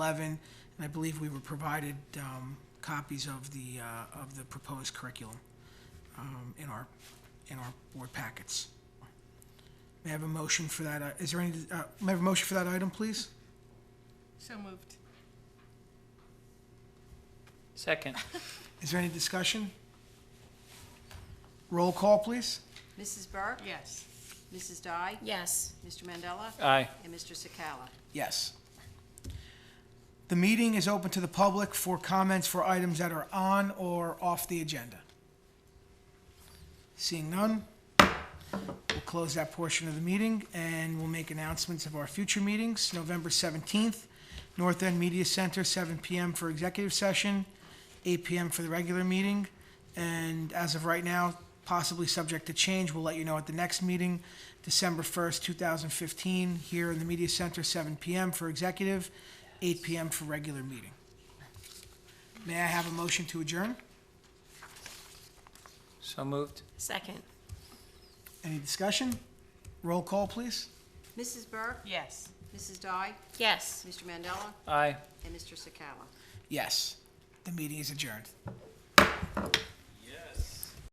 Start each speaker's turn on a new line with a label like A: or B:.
A: 11, and I believe we were provided um, copies of the, uh, of the proposed curriculum um, in our, in our board packets. May I have a motion for that? uh, Is there any, uh, may I have a motion for that item, please?
B: So moved.
C: Second.
A: Is there any discussion? Roll call, please.
D: Mrs. Burke?
B: Yes.
D: Mrs. Dye?
E: Yes,
D: Mr. Mandela?
C: Aye.
D: And Mr. Sakala?
A: Yes. The meeting is open to the public for comments for items that are on or off the agenda. Seeing none, we'll close that portion of the meeting, and we'll make announcements of our future meetings. November 17th, North End Media Center, 7 PM for executive session, 8 PM for the regular meeting, and as of right now, possibly subject to change, we'll let you know at the next meeting, December 1st, 2015, here in the Media Center, 7 PM for executive, 8 PM for regular meeting. May I have a motion to adjourn?
C: So moved.
E: second.
A: Any discussion? Roll call, please.
D: Mrs. Burke?
B: Yes.
D: Mrs. Dye?
E: Yes.
D: Mr. Mandela?
C: Aye.
D: And Mr. Sakala?
A: Yes. The meeting is adjourned.